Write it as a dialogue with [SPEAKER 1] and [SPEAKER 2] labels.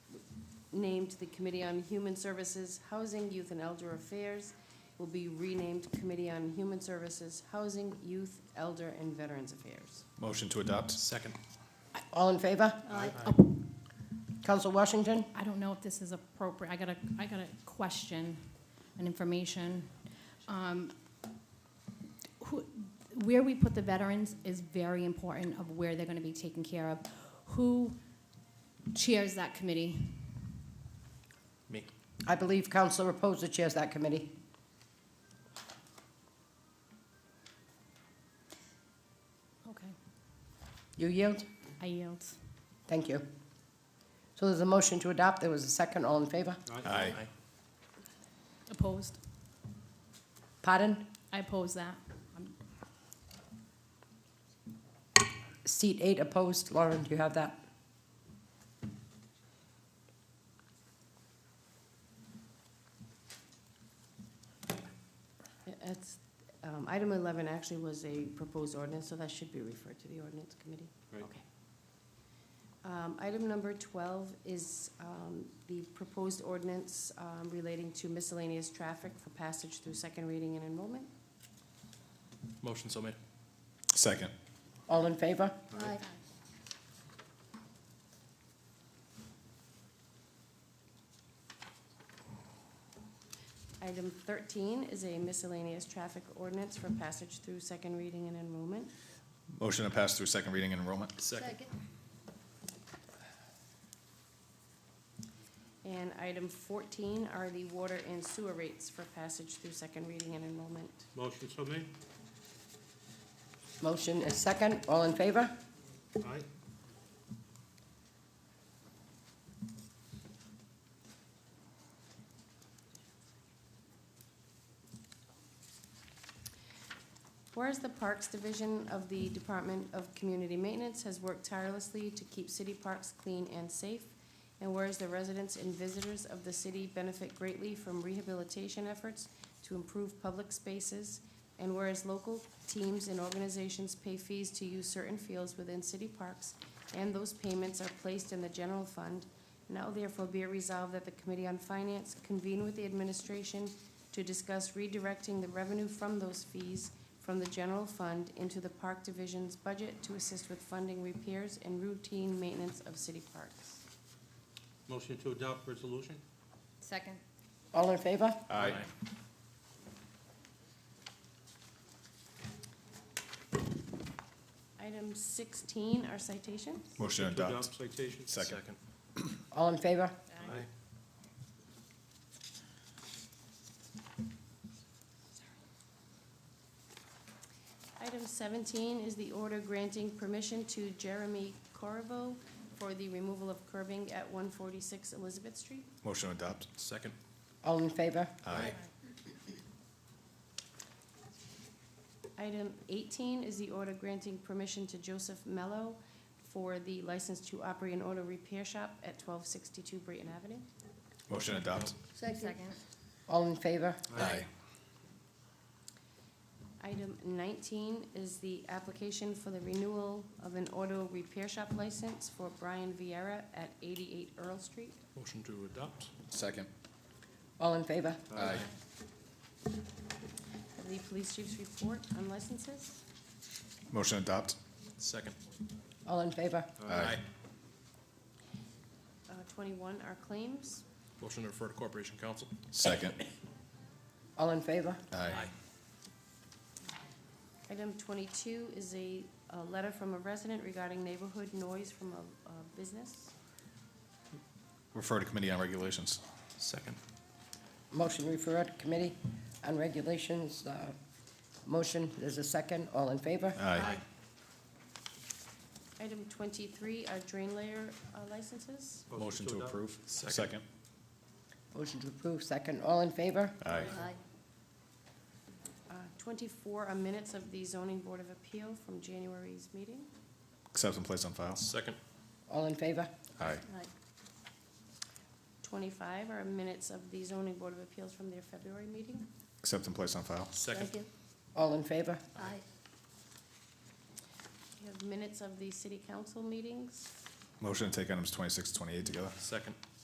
[SPEAKER 1] named the Committee on Human Services, Housing, Youth, and Elder Affairs, will be renamed Committee on Human Services, Housing, Youth, Elder, and Veterans Affairs.
[SPEAKER 2] Motion to adopt?
[SPEAKER 3] Second.
[SPEAKER 4] All in favor?
[SPEAKER 3] Aye.
[SPEAKER 4] Counsel Washington?
[SPEAKER 5] I don't know if this is appropriate, I got a, I got a question and information. Um, who- Where we put the veterans is very important of where they're gonna be taken care of. Who chairs that committee?
[SPEAKER 3] Me.
[SPEAKER 4] I believe Counselor Reposa chairs that committee.
[SPEAKER 5] Okay,
[SPEAKER 4] You yield?
[SPEAKER 5] I yield.
[SPEAKER 4] Thank you. So there's a motion to adopt. There was a second. All in favor?
[SPEAKER 2] Aye.
[SPEAKER 5] Opposed?
[SPEAKER 4] Pardon?
[SPEAKER 5] I oppose that. Um,
[SPEAKER 4] Seat eight opposed. Lauren, do you have that?
[SPEAKER 1] That's, um, item eleven actually was a proposed ordinance, so that should be referred to the ordinance committee.
[SPEAKER 3] Right.
[SPEAKER 1] Okay. Um, item number twelve is, um, the proposed ordinance, um, relating to miscellaneous traffic for passage through second reading and enrollment.
[SPEAKER 3] Motion so made.
[SPEAKER 2] Second.
[SPEAKER 4] All in favor?
[SPEAKER 3] Aye.
[SPEAKER 1] Item thirteen is a miscellaneous traffic ordinance for passage through second reading and enrollment.
[SPEAKER 2] Motion to pass through second reading and enrollment?
[SPEAKER 3] Second.
[SPEAKER 1] And item fourteen are the water and sewer rates for passage through second reading and enrollment.
[SPEAKER 6] Motion so made.
[SPEAKER 4] Motion is second. All in favor?
[SPEAKER 6] Aye.
[SPEAKER 1] Whereas the Parks Division of the Department of Community Maintenance has worked tirelessly to keep city parks clean and safe, and whereas the residents and visitors of the city benefit greatly from rehabilitation efforts to improve public spaces, and whereas local teams and organizations pay fees to use certain fields within city parks, and those payments are placed in the general fund, now therefore be it resolved that the Committee on Finance convene with the administration to discuss redirecting the revenue from those fees from the general fund into the park division's budget to assist with funding repairs and routine maintenance of city parks.
[SPEAKER 6] Motion to adopt resolution.
[SPEAKER 5] Second.
[SPEAKER 4] All in favor?
[SPEAKER 2] Aye.
[SPEAKER 1] Item sixteen are citations.
[SPEAKER 2] Motion to adopt?
[SPEAKER 6] citation.
[SPEAKER 2] Second.
[SPEAKER 4] All in favor?
[SPEAKER 6] Aye.
[SPEAKER 1] Item seventeen is the order granting permission to Jeremy Corvo for the removal of curbing at one forty-six Elizabeth Street.
[SPEAKER 2] Motion to adopt?
[SPEAKER 3] Second.
[SPEAKER 4] All in favor?
[SPEAKER 2] Aye.
[SPEAKER 1] Item eighteen is the order granting permission to Joseph Mello for the license to operate an auto repair shop at twelve sixty-two Brayton Avenue.
[SPEAKER 2] Motion to adopt?
[SPEAKER 5] Second.
[SPEAKER 4] All in favor?
[SPEAKER 2] Aye.
[SPEAKER 1] Item nineteen is the application for the renewal of an auto repair shop license for Brian Vieira at eighty-eight Earl Street.
[SPEAKER 3] Motion to adopt.
[SPEAKER 2] Second.
[SPEAKER 4] All in favor?
[SPEAKER 2] Aye.
[SPEAKER 1] Have the police chief's report on licenses.
[SPEAKER 2] Motion to adopt?
[SPEAKER 3] Second.
[SPEAKER 4] All in favor?
[SPEAKER 2] Aye.
[SPEAKER 1] Uh, twenty-one are claims.
[SPEAKER 3] Motion to refer to Corporation Council.
[SPEAKER 2] Second.
[SPEAKER 4] All in favor?
[SPEAKER 2] Aye.
[SPEAKER 1] Item twenty-two is a, a letter from a resident regarding neighborhood noise from a, a business.
[SPEAKER 2] Refer to Committee on Regulations?
[SPEAKER 3] Second.
[SPEAKER 4] Motion referred to Committee on Regulations. uh, Motion, there's a second. All in favor?
[SPEAKER 2] Aye.
[SPEAKER 1] Item twenty-three are drain layer uh, licenses.
[SPEAKER 2] Motion to
[SPEAKER 6] adopt.
[SPEAKER 2] approve?
[SPEAKER 3] Second.
[SPEAKER 4] Motion to approve, second. All in favor?
[SPEAKER 2] Aye.
[SPEAKER 1] Uh, twenty-four are minutes of the zoning board of appeal from January's meeting.
[SPEAKER 2] Accept and place on file?
[SPEAKER 3] Second.
[SPEAKER 4] All in favor?
[SPEAKER 2] Aye.
[SPEAKER 1] Twenty-five are minutes of the zoning board of appeals from their February meeting.
[SPEAKER 2] Accept and place on file?
[SPEAKER 3] Second.
[SPEAKER 4] All in favor?
[SPEAKER 1] We have minutes of the city council meetings.
[SPEAKER 2] Motion to take items 26 to 28 together?
[SPEAKER 3] Second.